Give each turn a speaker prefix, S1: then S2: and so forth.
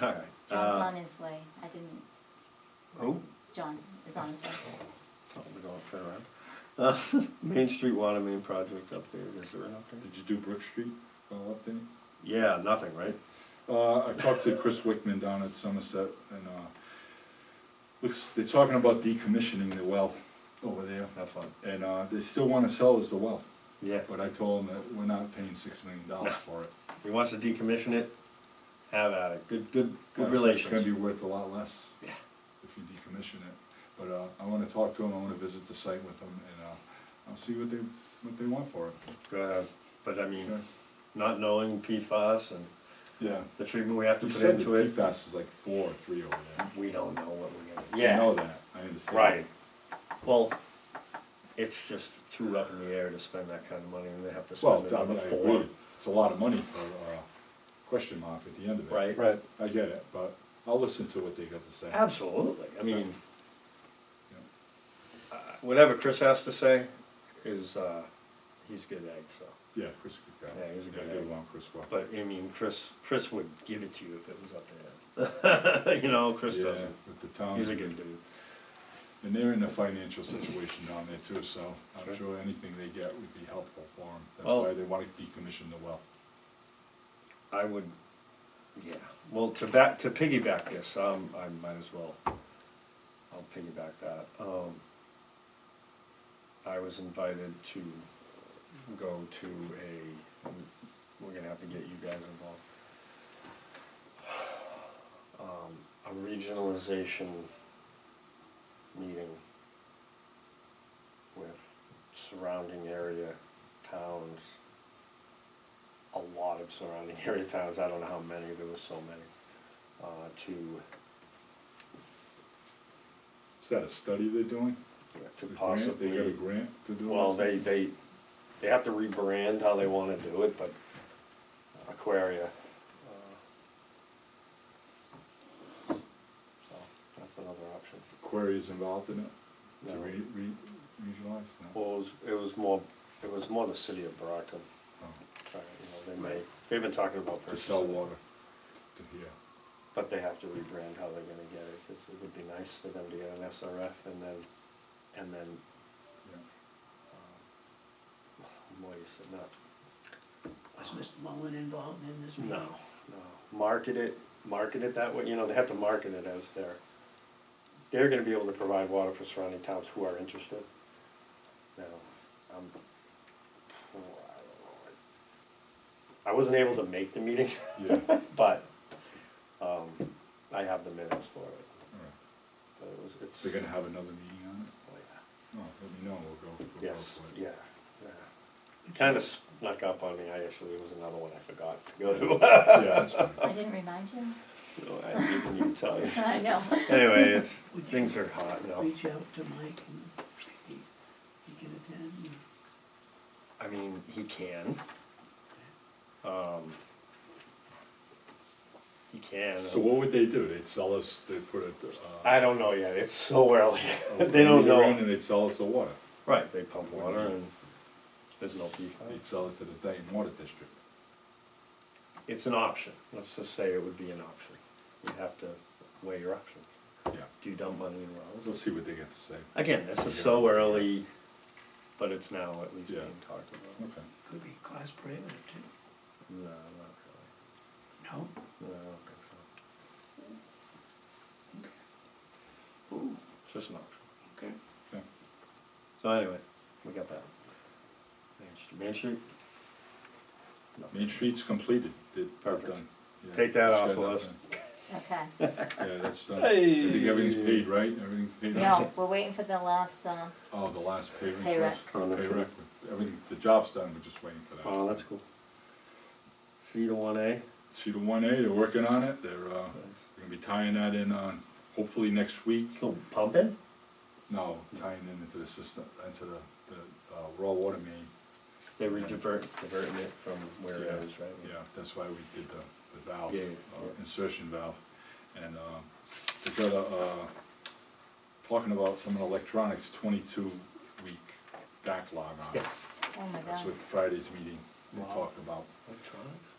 S1: All right.
S2: John's
S1: Uh, oh,
S2: on his way. I didn't,
S1: Who?
S2: John is on his way.
S1: Oh, we're going turn around. Uh, Main Street Water Main Project update, is there an update?
S3: Did you do Brook Street, uh, update?
S1: Yeah, nothing, right?
S3: Uh, I talked to Chris Wickman down at Somerset, and, uh, looks, they're talking about decommissioning the well over there,
S1: Have fun.
S3: and, uh, they still wanna sell us the well,
S1: Yeah,
S3: but I told them that we're not paying six million dollars for it.
S1: he wants to decommission it, have at it, good, good,
S3: I
S1: good
S3: said Uh, It's gonna
S1: relations.
S3: be worth a lot less
S1: Yeah.
S3: if you decommission it, but, uh, I wanna talk to them, I wanna visit the site with them, and, uh, I'll see what they, what they want for it.
S1: Go ahead, but I mean,
S3: Okay?
S1: not knowing PFAS and
S3: Yeah.
S1: the treatment we have to
S3: You
S1: put
S3: said the
S1: into it,
S3: PFAS is like four or three over there.
S1: we don't know what we're gonna.
S3: I
S1: Yeah,
S3: know that, I understand.
S1: right. Well, it's just too up in the air to spend that kind of money and they have to
S3: Well,
S1: spend
S3: I
S1: another
S3: mean, I
S1: four.
S3: agree, it's a lot of money for a question mark at the end of it.
S1: Right,
S4: Right,
S3: I get it, but I'll listen to what they got to say.
S1: absolutely, I mean,
S3: Yeah.
S1: whatever Chris has to say is, uh, he's a good egg, so.
S3: Yeah, Chris, good guy.
S1: Yeah, he's a good
S3: I get
S1: guy.
S3: along with Chris well.
S1: But I mean, Chris, Chris would give it to you if it was up to him. you know, Chris
S3: Yeah,
S1: doesn't.
S3: But the town,
S1: He's a good dude.
S3: and they're in a financial situation down there too, so I'm
S1: Sure.
S3: sure anything they get would be helpful for them. That's
S1: Well-
S3: why they wanna decommission the well.
S1: I would, yeah. Well, to back to piggyback this, um, I might as well. I'll piggyback that. Um, I was invited to go to a. We're gonna have to get you guys involved. Um, a regionalization meeting with surrounding area towns a lot of surrounding area towns, I don't know how many, there was so many, uh, to,
S3: Is that a study they're doing?
S1: to
S3: The grant? They got a
S1: possibly.
S3: grant to do?
S1: Well,
S3: this?
S1: they, they, they have to rebrand how they wanna do it, but Aquaria. uh, So, that's another option.
S3: Quarries involved in it? To
S1: No.
S3: re, re, regionalize? No.
S1: Well, it was, it was more, it was more the city of Brockton,
S3: Oh.
S1: trying, you know, they may, they've been talking about
S3: To sell
S1: purchasing it.
S3: water to here.
S1: But they have to rebrand how they're gonna get it, cause it would be nice for them to get an SRF and then, and then,
S3: Yeah.
S1: um, what is it, not,
S4: was Mr. Mullin involved in this?
S1: no, no, market it, market it that way, you know, they have to market it as their, they're gonna be able to provide water for surrounding towns who are interested. Now, I'm, oh, I don't know, I- I wasn't able to make the meeting,
S3: Yeah, all right.
S1: but, um, I have the minutes for it, but it was, it's.
S3: They're gonna have another meeting on it?
S1: oh, yeah.
S3: Oh, let me know, we'll go. we'll go
S1: Yes,
S3: for it.
S1: yeah, yeah. Kind of snuck up on me, I actually, there was another one I forgot to go to.
S3: Yeah, that's fine.
S2: I didn't remind you.
S1: No, I didn't even tell you.
S2: Oh. I know.
S1: Anyway, it's, things are hot now.
S4: Reach out to Mike and he, he can attend.
S1: I mean, he can. Um, He can.
S3: So what would they do? They'd sell us, they'd put a, uh.
S1: I don't know yet, it's so early,
S3: a
S1: they don't
S3: meter in
S1: know.
S3: And they'd sell us the water.
S1: Right, they pump water and there's no PFAS.
S3: They'd sell it to the Dayton Water District.
S1: It's an option, let's just say it would be an option. You'd have to weigh your options.
S3: Yeah,
S1: Do you dump money in wells?
S3: we'll see what they get to say.
S1: Again, this is so early, but it's now at least
S3: Yeah.
S1: being talked about.
S3: Okay.
S4: Could be class prohibitive too.
S1: No, not
S4: No?
S1: really. No, I don't think so.
S4: Ooh,
S1: It's just an option.
S4: okay.
S3: Okay.
S1: So anyway, we got that. Main Street. Main Street? No.
S3: Main Street's completed, did, they're
S1: Perfect.
S3: done. Yeah,
S1: Take that
S3: it's
S1: off
S3: got
S1: the
S3: nothing.
S1: list.
S2: Okay.
S3: Yeah, that's done. I
S1: Hey.
S3: think everything's paid, right? Everything's paid?
S2: No, we're waiting for the last, uh,
S3: Oh, the last pay
S2: Pay
S3: request?
S1: rec.
S3: Pay rec, everything, the job's done, we're just waiting for that.
S1: Oh, that's cool. C to one A?
S3: See the one A, they're working on it, they're, uh, gonna be tying that in on, hopefully next week.
S1: Still pumping?
S3: No, tying in into the system, into the, the, uh, raw water main,
S1: They were divert, diverting it from where
S3: Yeah.
S1: it is, right?
S3: yeah, that's why we did the, the valve,
S1: Yeah, yeah.
S3: uh, insertion valve. And, uh, they got a, uh, talking about some electronics twenty-two week backlog on it.
S1: Yeah.
S2: oh my
S3: That's
S2: god.
S3: what Friday's meeting, they
S1: Wow.
S3: talked about,
S1: Electronics?